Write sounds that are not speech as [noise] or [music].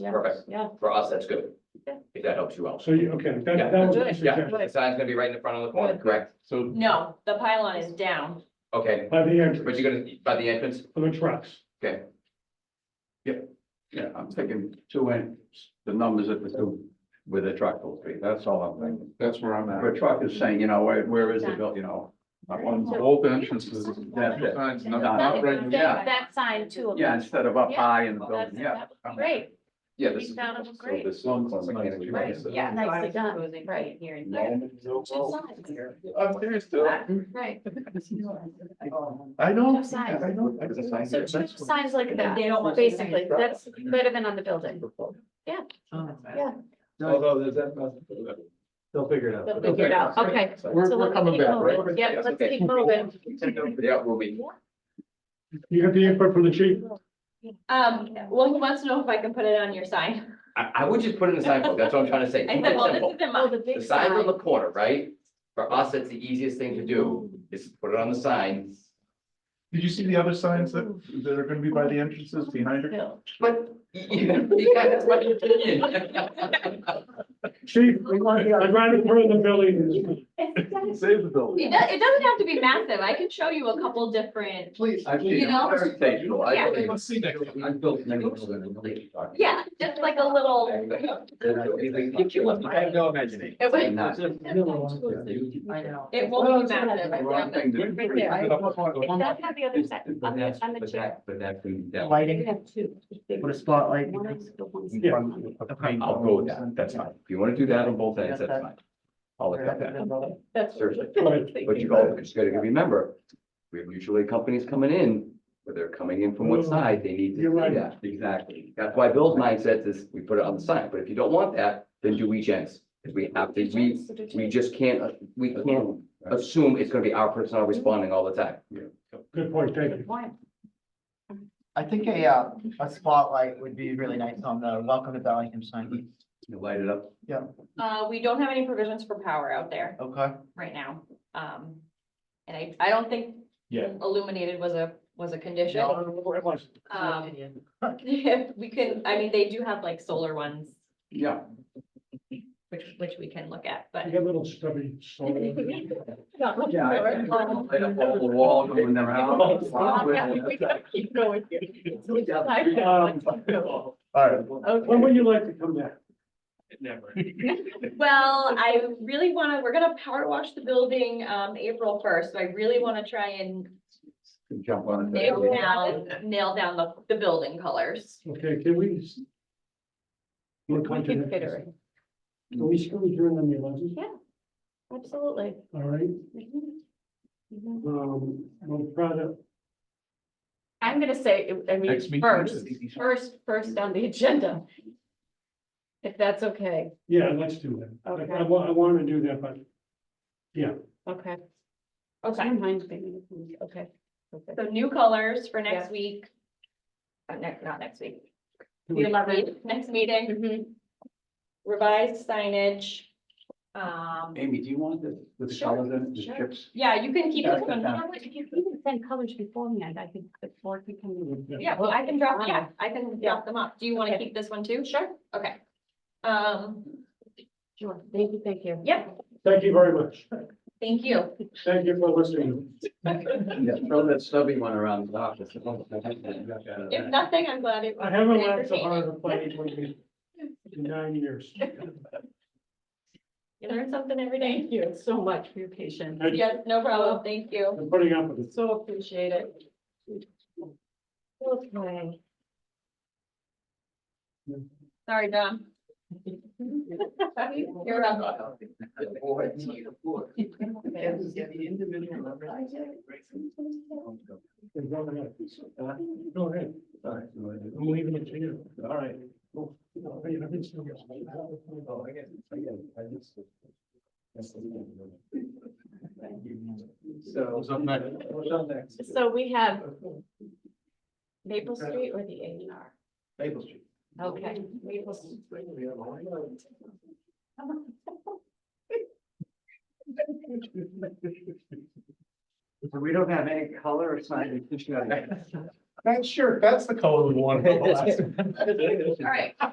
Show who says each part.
Speaker 1: Yeah,
Speaker 2: Perfect.
Speaker 1: yeah.
Speaker 2: For us, that's good.
Speaker 1: Yeah.
Speaker 2: If that helps you out.
Speaker 3: So you, okay, that, that was my
Speaker 2: Yeah,
Speaker 3: suggestion.
Speaker 2: the sign's gonna be right in the front of the corner,
Speaker 1: Good.
Speaker 2: correct?
Speaker 3: So
Speaker 1: No, the pylon is down.
Speaker 2: Okay,
Speaker 3: by the
Speaker 2: but
Speaker 3: entrance
Speaker 2: you're gonna, by the entrance,
Speaker 3: for the trucks.
Speaker 4: Yeah, I'm thinking two inches, the numbers at the two, where the truck will be, that's all I'm thinking.
Speaker 5: That's where I'm
Speaker 4: Where
Speaker 5: at.
Speaker 4: a truck is saying, you know, where, where is the bill, you know? not
Speaker 5: On
Speaker 4: one-
Speaker 5: both entrances,
Speaker 4: That's it.
Speaker 5: signs, not,
Speaker 1: Uh,
Speaker 4: Not
Speaker 5: not
Speaker 4: right,
Speaker 5: right,
Speaker 4: yeah.
Speaker 6: That sign too.
Speaker 4: Yeah, instead of up
Speaker 6: Yeah.
Speaker 4: high in the
Speaker 6: Well, that's-
Speaker 4: building, yeah.
Speaker 6: that would be Great,
Speaker 2: yeah, this
Speaker 6: we
Speaker 2: is,
Speaker 6: found it was great.
Speaker 5: This one's on the-
Speaker 6: Right, yeah.
Speaker 1: So I
Speaker 6: Nicely
Speaker 1: was
Speaker 6: done,
Speaker 1: proposing
Speaker 6: right.
Speaker 1: putting Here and there.
Speaker 6: Two
Speaker 5: yeah.
Speaker 6: signs,
Speaker 5: I'm there still.
Speaker 6: right.
Speaker 5: I know.
Speaker 6: Two signs.
Speaker 5: I know. I
Speaker 4: There's a sign
Speaker 6: So two signs like
Speaker 1: They don't
Speaker 6: that,
Speaker 1: want you to-
Speaker 6: basically, that's better than on the building.
Speaker 5: Although there's that. They'll figure it
Speaker 1: They'll
Speaker 6: Figure it out, okay.
Speaker 5: We're, we're coming back, right?
Speaker 6: Yeah, let's keep moving.
Speaker 2: yeah, we'll be,
Speaker 3: You got the input from the chief?
Speaker 1: Um, well, he wants to know if I can put it on your sign. [laughs]
Speaker 2: I, I would just put in the sign book, that's what I'm trying to
Speaker 6: [laughs]
Speaker 2: say.
Speaker 1: I
Speaker 2: Keep
Speaker 1: said,
Speaker 2: it
Speaker 1: well,
Speaker 2: simple.
Speaker 1: this isn't
Speaker 6: Oh,
Speaker 1: mine.
Speaker 6: the big
Speaker 2: The sign's on
Speaker 6: sign.
Speaker 2: the corner, right? For us, that's the easiest thing to do, is put it on the sign.
Speaker 5: Did you see the other signs that, that are gonna be by the entrances behind her?
Speaker 6: No. [laughs]
Speaker 2: But. You got, that's my opinion.
Speaker 3: Chief, I'd rather burn the building.
Speaker 5: Save the building.
Speaker 1: It does, it doesn't have to be massive. I can show you a couple different,
Speaker 5: Please.
Speaker 4: I've
Speaker 1: You
Speaker 4: seen
Speaker 1: know?
Speaker 4: it. Very tasteful. I
Speaker 1: Yeah.
Speaker 4: believe it.
Speaker 5: Let's see next time.
Speaker 2: I've built many buildings, I know what you're talking about.
Speaker 1: yeah, just like a little.
Speaker 2: I have no imagination.
Speaker 1: It would-
Speaker 4: Not-
Speaker 6: I know.
Speaker 1: It won't be massive. I
Speaker 4: Wrong
Speaker 1: promise.
Speaker 4: thing to do.
Speaker 6: It's not on the other side, on the, on the chair.
Speaker 2: But that, that.
Speaker 6: We
Speaker 7: lighting,
Speaker 6: have two.
Speaker 7: put a spotlight.
Speaker 6: One is the one-
Speaker 2: Yeah. I'll go with that, that's fine. If you wanna do that on both ends, that's fine. I'll accept that.
Speaker 1: That's-
Speaker 2: Seriously.
Speaker 3: Right.
Speaker 2: But you all just gotta remember, we have usually companies coming in, where they're coming in from one side, they need to
Speaker 3: You're right.
Speaker 2: see that. Exactly. That's why Bill's mindset is we put it on the sign, but if you don't want that, then do each ends. Because we have to, we, we just can't, uh, we can't assume it's gonna be our personnel responding all the time.
Speaker 3: Good point, thank you.
Speaker 6: One.
Speaker 7: I think a, uh, a spotlight would be really nice on the welcome to Bellingham sign.
Speaker 4: You Light it up.
Speaker 1: Uh, we don't have any provisions for power out there
Speaker 7: Okay,
Speaker 1: right now. Um, and I, I don't think
Speaker 5: Yeah.
Speaker 1: illuminated was a, was a condition.
Speaker 3: No, I don't know where it was.
Speaker 1: Um, if [laughs] we can, I mean, they do have like solar ones,
Speaker 4: Yeah.
Speaker 1: which, which we can look at, but.
Speaker 3: You got little stubby soul. Um,
Speaker 4: Yeah. I- Light up all the wall going around.
Speaker 6: Keep going here.
Speaker 3: Um,
Speaker 7: all right.
Speaker 3: When would you like to come back?
Speaker 1: Well, I really wanna, we're gonna power wash the building, um, April first, so I really wanna try and
Speaker 4: Jump on it.
Speaker 1: nail down, nail down the, the building colors.
Speaker 3: Okay, can we? s- We're content.
Speaker 6: Considering.
Speaker 3: Can we still adjourn on the eleventh?
Speaker 6: Absolutely.
Speaker 3: All right,
Speaker 6: Mhm. Mhm.
Speaker 3: um, we'll try to,
Speaker 6: I'm gonna say, I
Speaker 5: Next
Speaker 6: mean,
Speaker 5: meeting.
Speaker 6: first, first, first on the agenda. If that's okay,
Speaker 3: yeah, let's do that. I- I
Speaker 6: Okay.
Speaker 3: wa- I want to do that, but
Speaker 6: okay.
Speaker 1: Okay.
Speaker 6: Don't mind being- Okay. Okay.
Speaker 1: So new colors for next
Speaker 6: Yeah.
Speaker 1: week. Uh, next, not next week.
Speaker 3: Two
Speaker 1: The
Speaker 3: weeks.
Speaker 1: eleventh, next meeting,
Speaker 6: Mhm.
Speaker 1: revised signage. Um,
Speaker 4: Amy, do you want the, the
Speaker 6: Sure,
Speaker 4: colors in, the
Speaker 6: sure.
Speaker 4: chips?
Speaker 1: yeah, you can keep
Speaker 4: Yeah,
Speaker 1: this
Speaker 4: that's
Speaker 1: one.
Speaker 4: fine.
Speaker 6: You know what, If you even send colors beforehand, I think the board can come.
Speaker 1: Yeah, well, I can drop,
Speaker 6: Fine.
Speaker 1: yeah, I can drop them up. Do you wanna keep this one too? Sure. Okay. Um,
Speaker 6: Sure, thank you, thank you.
Speaker 1: yep,
Speaker 3: thank you very much.
Speaker 1: thank you.
Speaker 3: Thank you for listening.
Speaker 4: Yeah, throw that stubby one around the office.
Speaker 1: If nothing, I'm glad it. was
Speaker 3: I haven't laughed so hard
Speaker 1: entertaining.
Speaker 3: at a planning board meeting in nine years.
Speaker 1: You learn something every day.
Speaker 6: Thank you so much for your patience.
Speaker 3: I-
Speaker 1: Yes, no problem. Thank you.
Speaker 3: I'm putting up with it.
Speaker 6: So appreciate it. Okay.
Speaker 1: Sorry, Dom. You're up.
Speaker 6: [laughs]
Speaker 3: Go ahead. Uh, Go ahead. I'm leaving it to you.
Speaker 4: All right.
Speaker 3: Oh, I've been still getting-
Speaker 4: Oh, I guess, I guess, I just. that's the thing. So.
Speaker 5: What's up next?
Speaker 4: What's up next?
Speaker 6: So we have Maple Street or the A and R?
Speaker 4: Maple Street.
Speaker 6: Okay.
Speaker 4: So we don't have any color or sign. [laughs]
Speaker 5: That's sure, that's the color we want.
Speaker 1: All right.